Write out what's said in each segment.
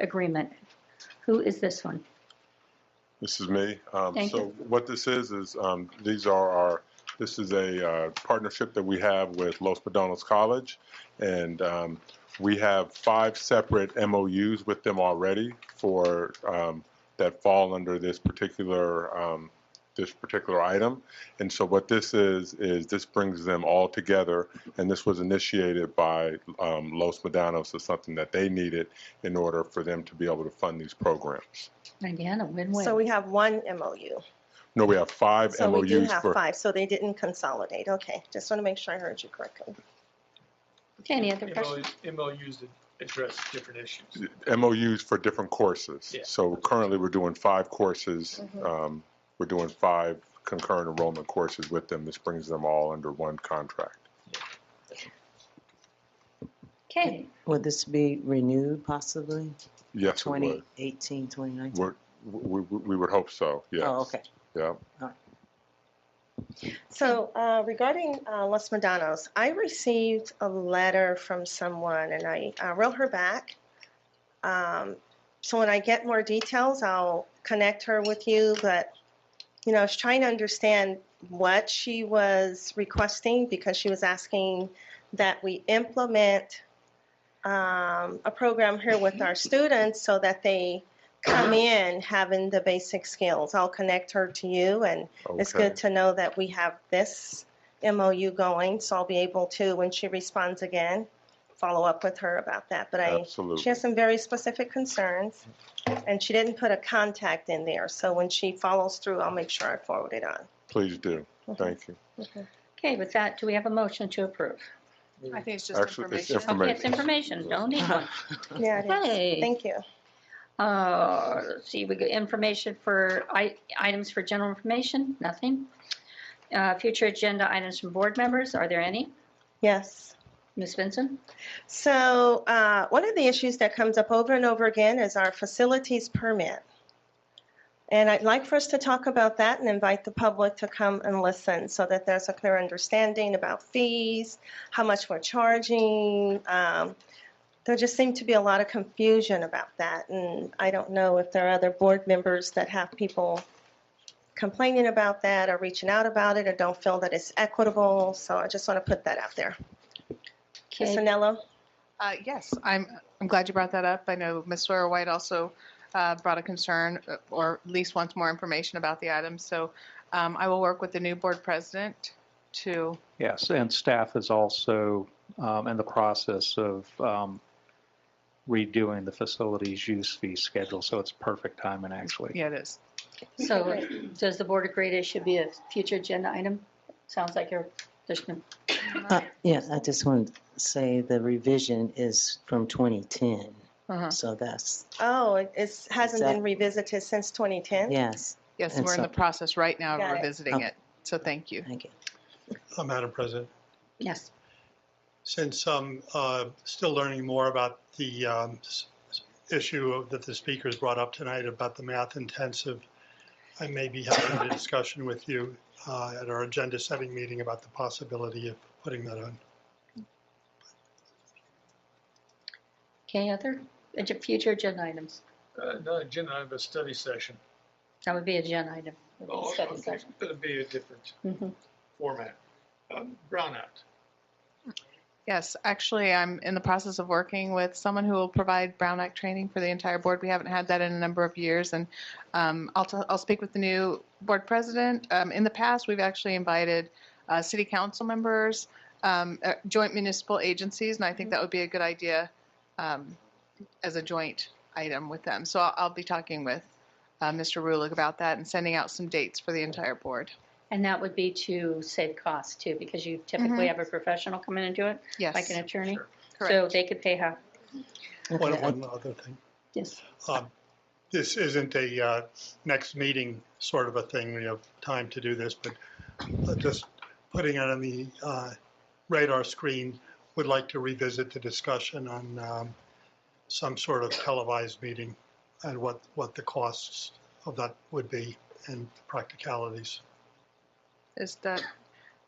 agreement. Who is this one? This is me. Um, Thank So you. what this is, is um, these are our, this is a uh, partnership that we have with Los Padonos College. And um, we have five separate MOUs with them already for, um, that fall under this particular, um, this particular item. And so what this is, is this brings them all together. And this was initiated by um, Los Padonos as something that they needed in order for them to be able to fund these programs. Again, a win-win. So we have one MOU. No, we have five So we do MOUs have for, five, so they didn't consolidate. Okay, just want to make sure I heard you correctly. Okay, any other questions? MOUs MOUs that address different issues. MOUs for different courses. Yeah. So currently, we're doing five courses. Mhm. Um, We're doing five concurrent enrollment courses with them. This brings them all under one contract. Okay, Would this be renewed possibly? Yes, it would. 2018, 2019? We're- We, we we would hope so, yes. Oh, okay. Yeah. So uh, regarding uh, Los Medanos, I received a letter from someone and I uh, wrote her back. Um, So when I get more details, I'll connect her with you, but, you know, I was trying to understand what she was requesting because she was asking that we implement um, a program here with our students so that they come in having the basic skills. I'll connect her to you and it's Okay. good to know that we have this MOU going, so I'll be able to, when she responds again, follow up with her about that. But I, she Absolutely. has some very specific concerns, and she didn't put a contact in there, so when she follows through, I'll make sure I forward it on. Please do. Mhm. Thank you. okay, with that, do we have a motion to approve? I think it's just Actually, it's information. Okay, information. it's information, don't need one. Yeah, it is. Okay. Thank you. Uh, let's see, we got information for, i- items for general information, nothing. Uh, Future agenda items from board members, are there any? Yes. Ms. Vincent? So uh, one of the issues that comes up over and over again is our facilities permit. And I'd like for us to talk about that and invite the public to come and listen so that there's a clear understanding about fees, how much we're charging. Um, There just seemed to be a lot of confusion about that. And I don't know if there are other board members that have people complaining about that or reaching out about it or don't feel that it's equitable. So I just want to put that out there. Ms. Okay, Anello? Uh, yes, I'm, I'm glad you brought that up. I know Ms. Sawyer White also uh, brought a concern, uh, or at least wants more information about the item. So um, I will work with the new board president to, Yes, and staff is also um, in the process of um, redoing the facilities use fee schedule, so it's perfect timing, actually. yeah, it is. so does the board agree it should be a future agenda item? Sounds like you're, there's no, Uh, Yeah, I just wanted to say the revision is from 2010, Uh-huh. so that's, Oh, it it's- hasn't that- been revisited since 2010? yes, Yes, And we're in so- the process right now Got of it. revisiting Oh. it. So thank you. thank you. Uh, Madam President, yes, since I'm uh, still learning more about the um, s- s- issue of- that the speakers brought up tonight about the math intensive, I may be having a discussion with you uh, at our agenda setting meeting about the possibility of putting that on. okay, other, ag- future agenda items? Uh, No, Jen, I have a study session. That would be a agenda item. Oh, Study Okay, session. It'll be a different Mhm. format. Um, Brownout. Yes, actually, I'm in the process of working with someone who will provide Brown Act training for the entire board. We haven't had that in a number of years, and um, I'll, t- I'll speak with the new board president. Um, in the past, we've actually invited uh, city council members, um, uh, joint municipal agencies, and I think that would be a good idea um, as a joint item with them. So I'll, I'll be talking with uh, Mr. Rulick about that and sending out some dates for the entire board. And that would be to save costs too, because you typically Mhm. have a professional come in and do it, Yes, like an attorney. Sure. So correct. they could pay half, One Okay, I- one other thing. yes. Um, This isn't a uh, next meeting sort of a thing, we have time to do this, but uh, just putting it on the uh, radar screen, would like to revisit the discussion on um, some sort of televised meeting and what, what the costs of that would be and practicalities. Is that,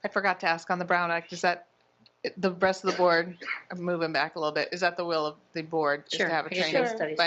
I forgot to ask on the Brown Act, is that, the rest of the board, I'm moving back a little bit, is that the will of the board? is to Sure, have a because training you'll study by